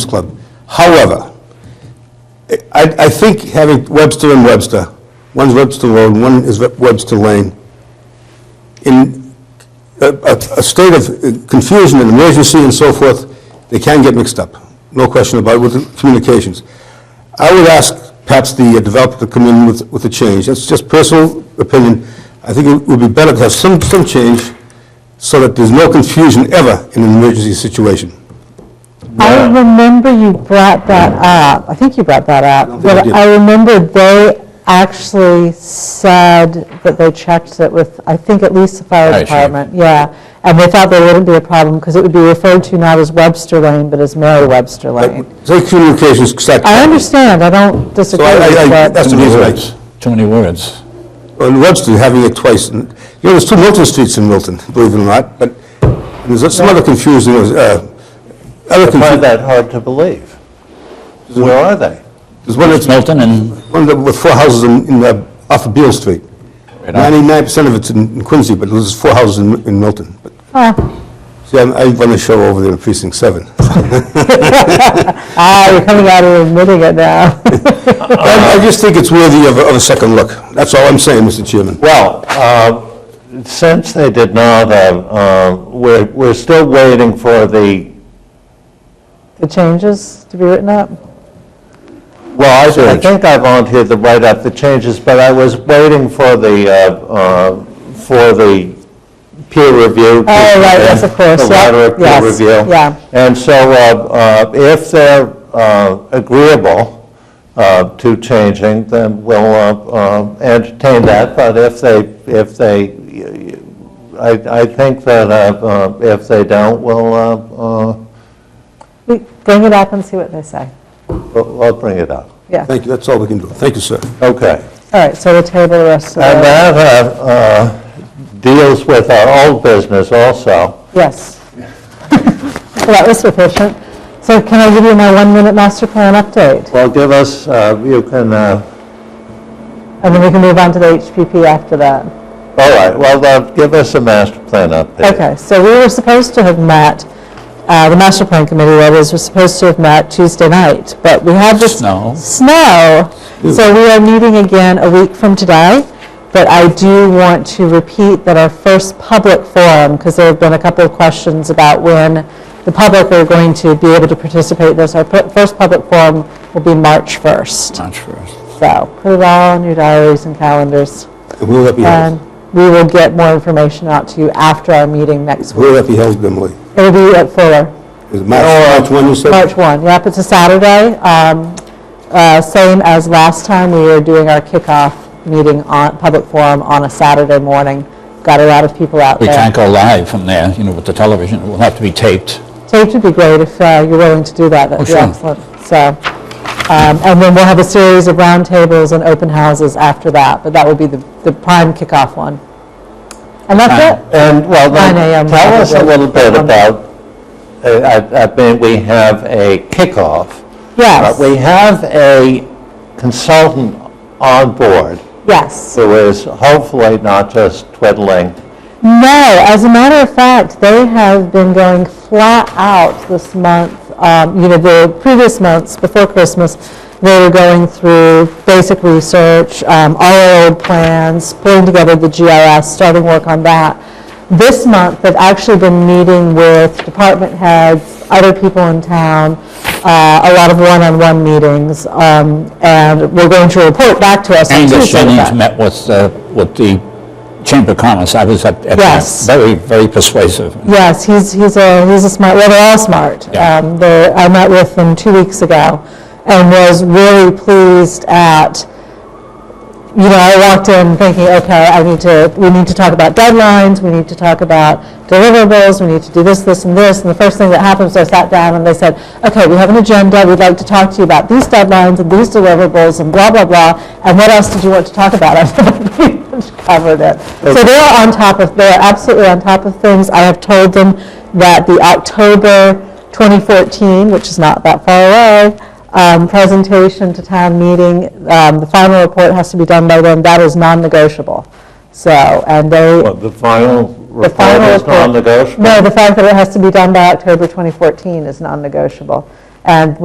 Club. However, I, I think having Webster and Webster, one's Webster Road, one is Webster Lane, in a, a, a state of confusion and emergency and so forth, they can get mixed up, no question about it, with the communications. I would ask perhaps the developer to come in with, with a change, that's just personal opinion. I think it would be better to have some, some change so that there's no confusion ever in an emergency situation. I remember you brought that up, I think you brought that don't up, think I but did. I remember they actually said that they checked it with, I think at least the fire Oh, Fire chief. department, yeah, and they thought there wouldn't be a problem, because it would be referred to not as Webster Lane, but as Mary Webster Lane. So communications, exactly. I understand, I don't So disagree I, with I, I- that. that's the reason I, Too many words. on Webster, having it twice. and- You know, there's two Milton Streets in Milton, believe it or not, but there's some other confusing, uh, other Find confusion. that hard to believe. Where are they? There's one that's, Milton and, one that- with four houses in, in, uh, off of Beale Street. Ninety-nine percent of it's in in Quincy, but there's four houses in, in Milton. But, Ah, See, I'm- I run a show over there in precinct seven. Ah, you're coming out and admitting it now. I, I just think it's worthy of, a- of a second look. That's all I'm saying, Mr. Chairman. Well, uh, since they did not, uh, uh, we're we're still waiting for the, The changes to be written up? well, I- I think I volunteered to write up the changes, but I was waiting for the, uh, uh, for the peer review. to Oh, right, yes, of come in, course, The yeah, letter of peer yes, review. yeah. And so uh, uh, if they're uh, agreeable uh, to changing, then we'll uh, uh, entertain that, but if they, if they, I I think that uh, uh, if they don't, we'll, uh, uh, We- Bring it up and see what they say, we'll we'll bring it up. yeah. Thank you, that's all we can do. Thank you, sir. Okay. All right, so we'll table the rest of the... And that uh, uh, deals with our old business also. Yes. Well, that was sufficient. So can I give you my one-minute master plan update? Well, give us, uh, you can, uh, And then we can move on to the HPP after that. all right, well, uh, give us a master plan update. Okay, so we were supposed to have met, uh, the master plan committee, that is, was supposed to have met Tuesday night, but we had this Snow. snow. So we are meeting again a week from today, but I do want to repeat that our first public forum, because there have been a couple of questions about when the public are going to be able to participate in this, our pu- first public forum will be March 1st. March 1st. So put it all in your diaries and calendars, And Where will that be and held? we will get more information out to you after our meeting next week. Where will that be held, Emily? It'll be at Fuller. Is it March, March one, you said? March 1, yep, it's a Saturday. Um, uh, Same as last time, we are doing our kickoff meeting on, public forum on a Saturday morning. Got a lot of people out We there. can't go live from there, you know, with the television. It will have to be taped. Taped would be great if uh, you're willing to do that, that'd be Oh, sure. excellent. So, um, and then we'll have a series of roundtables and open houses after that, but that will be the the prime kickoff one. And that's it. And, well, then 9 a.m. tell us a little bit Um, about, uh, I I mean, we have a kickoff. But Yes, we have a consultant on board yes. who is hopefully not just twiddling. No, as a matter of fact, they have been going flat out this month. Um, You know, the previous months, before Christmas, they were going through basic research, um, all our old plans, pulling together the GRS, starting work on that. This month, they've actually been meeting with department heads, other people in town, uh, a lot of one-on-one meetings, um, and we're going to report back to us on And Tuesday. the with that. Jennings met with, uh, with the Chamber of Commerce. I was at, at that. Yes. Very, very persuasive. Yes, he's, he's a, he's a smart, well, they're all smart. Yeah. Um, they- I met with them two weeks ago and was really pleased at, you know, I walked in thinking, okay, I need to, we need to talk about deadlines, we need to talk about deliverables, we need to do this, this, and this. And the first thing that happens, I sat down and they said, okay, we have an agenda, we'd like to talk to you about these deadlines and these deliverables and blah, blah, blah. And what else did you want to talk about? I pretty much covered it. So they are on top of, they are absolutely on top of things. I have told them that the October 2014, which is not that far away, um, presentation to town meeting, um, the final report has to be done by then, that is non-negotiable. So, and they, Well, The final the report final is report... non-negotiable. No, the fact that it has to be done by October 2014 is non-negotiable. And